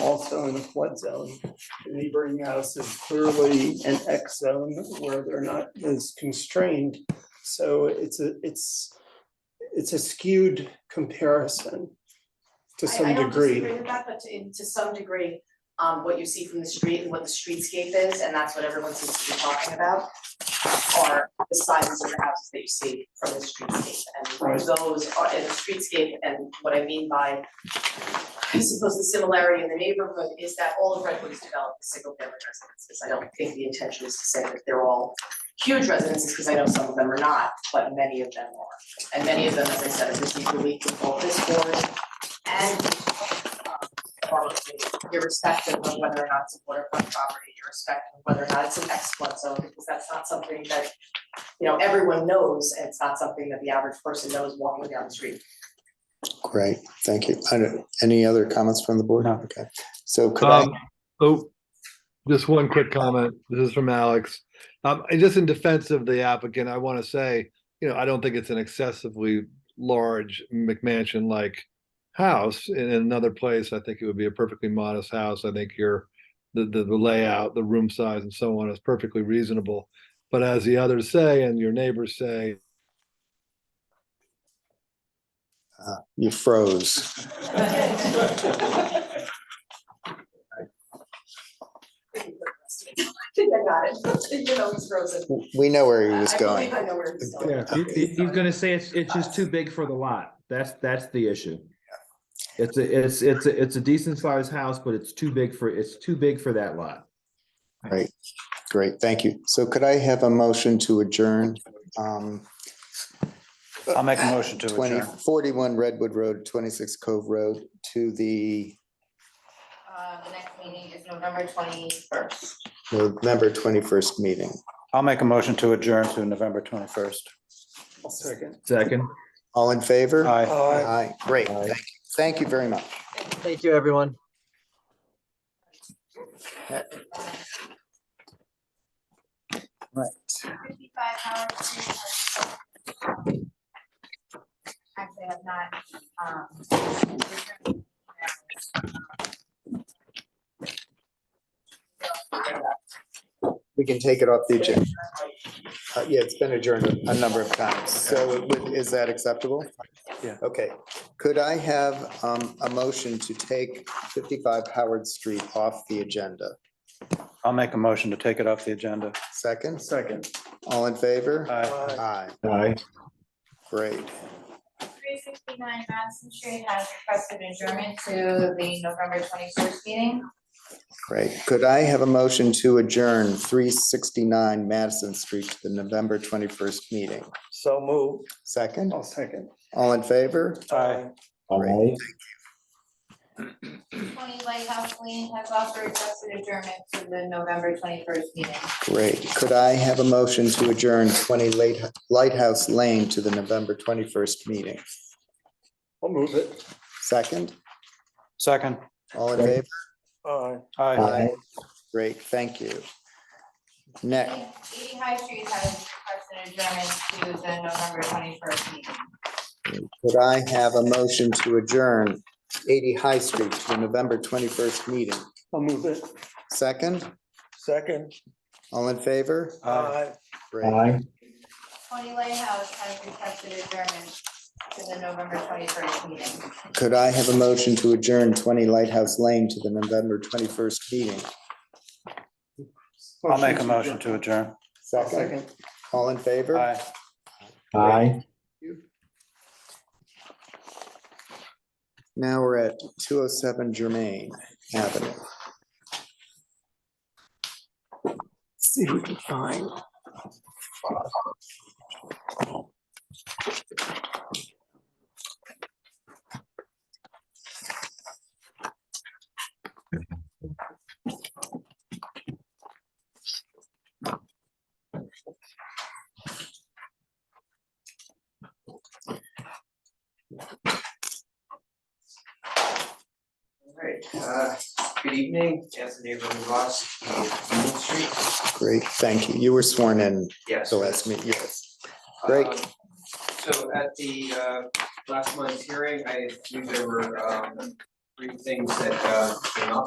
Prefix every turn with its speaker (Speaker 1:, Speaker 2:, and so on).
Speaker 1: also in a flood zone. The Neighboring house is clearly an X zone where they're not as constrained. So it's a, it's, it's a skewed comparison to
Speaker 2: I-
Speaker 1: some
Speaker 2: I don't
Speaker 1: degree.
Speaker 2: disagree with that, but to in- to some degree, um what you see from the street and what the streetscape is, and that's what everyone seems to be talking about. Are the sizes of the houses that you see from the streetscape
Speaker 1: Right.
Speaker 2: and those are in the streetscape and what I mean by. I suppose the similarity in the neighborhood is that all of Redwood is developed as single family residences. I don't think the intention is to say that they're all huge residences, because I know some of them are not, but many of them are. And many of them, as I said, have received relief from both this board and um, or irrespective of whether or not it's a waterfront property, irrespective of whether or not it's an X flood zone, because that's not something that, you know, everyone knows, and it's not something that the average person knows walking down the street.
Speaker 3: Great, thank you. I don't- Any other comments from the board?
Speaker 4: No.
Speaker 3: Okay, so could I,
Speaker 5: Um, oh, just one quick comment. This is from Alex. Um, and just in defense of the applicant, I want to say, you know, I don't think it's an excessively large McMansion-like house. In another place, I think it would be a perfectly modest house. I think your, the, the, the layout, the room size and so on is perfectly reasonable. But as the others say, and your neighbors say,
Speaker 3: you froze.
Speaker 2: I think I got it, you know, it's frozen.
Speaker 3: We know where he was
Speaker 2: I
Speaker 3: going.
Speaker 2: believe I know where it's going.
Speaker 3: Yeah.
Speaker 4: He- he- He's gonna say it's, it's just too big for the lot. That's, that's the issue. It's a, it's, it's, a it's a decent sized house, but it's too big for, it's too big for that lot.
Speaker 3: Great, thank you. So could I have a motion to adjourn? um,
Speaker 6: I'll make a motion to
Speaker 3: Twenty
Speaker 6: adjourn.
Speaker 3: forty-one Redwood Road, twenty-six Cove Road to the
Speaker 7: Uh, the next meeting is November twenty-first.
Speaker 3: November twenty-first meeting.
Speaker 6: I'll make a motion to adjourn to November twenty-first.
Speaker 1: I'll second.
Speaker 4: Second.
Speaker 3: All in favor?
Speaker 6: Aye.
Speaker 3: Aye, great, thank you. Thank you very much.
Speaker 8: Thank you, everyone.
Speaker 3: Right.
Speaker 7: Fifty-five Howard Street. Actually, I have not, um.
Speaker 3: We can take it off the agenda. Uh, Yeah, it's been adjourned a number of times, so it would- is that acceptable?
Speaker 6: Yeah.
Speaker 3: Okay, could I have um, a motion to take 55 Howard Street off the agenda?
Speaker 6: I'll make a motion to take it off the agenda.
Speaker 3: Second,
Speaker 1: Second.
Speaker 3: all in favor?
Speaker 6: Aye.
Speaker 3: Aye,
Speaker 4: Aye.
Speaker 3: great.
Speaker 7: Three sixty-nine Madison Street has requested adjournment to the November twenty-first meeting.
Speaker 3: Great. Could I have a motion to adjourn three sixty-nine Madison Street to the November twenty-first meeting?
Speaker 1: So move.
Speaker 3: Second,
Speaker 1: I'll second.
Speaker 3: all in favor?
Speaker 6: Aye.
Speaker 3: Great.
Speaker 7: Twenty Lighthouse Lane has also requested adjournment to the November twenty-first meeting.
Speaker 3: Great. Could I have a motion to adjourn twenty Late- Lighthouse Lane to the November twenty-first meeting?
Speaker 1: I'll move it.
Speaker 3: Second,
Speaker 6: Second.
Speaker 3: all in favor?
Speaker 1: Aye.
Speaker 6: Aye.
Speaker 3: Great, thank you. Next,
Speaker 7: Eighty High Street has requested adjournment to the November twenty-first meeting.
Speaker 3: could I have a motion to adjourn eighty High Street to the November twenty-first meeting?
Speaker 1: I'll move it.
Speaker 3: Second,
Speaker 1: Second.
Speaker 3: all in favor?
Speaker 6: Aye.
Speaker 3: Great.
Speaker 7: Tony Lighthouse has requested adjournment to the November twenty-first meeting.
Speaker 3: Could I have a motion to adjourn 20 Lighthouse Lane to the November 21st meeting?
Speaker 6: I'll make a motion to adjourn.
Speaker 3: Second. All in favor?
Speaker 6: Aye.
Speaker 3: Now we're at 207 Germain Avenue.
Speaker 1: See who can find.
Speaker 9: All right, uh, good evening, as the neighborhood watch, Main Street,
Speaker 3: Great, thank you. You were sworn in
Speaker 9: yes.
Speaker 3: the last meeting, yes. Great.
Speaker 9: Um, So at the uh, last month's hearing, I knew there were um, three things that uh came up.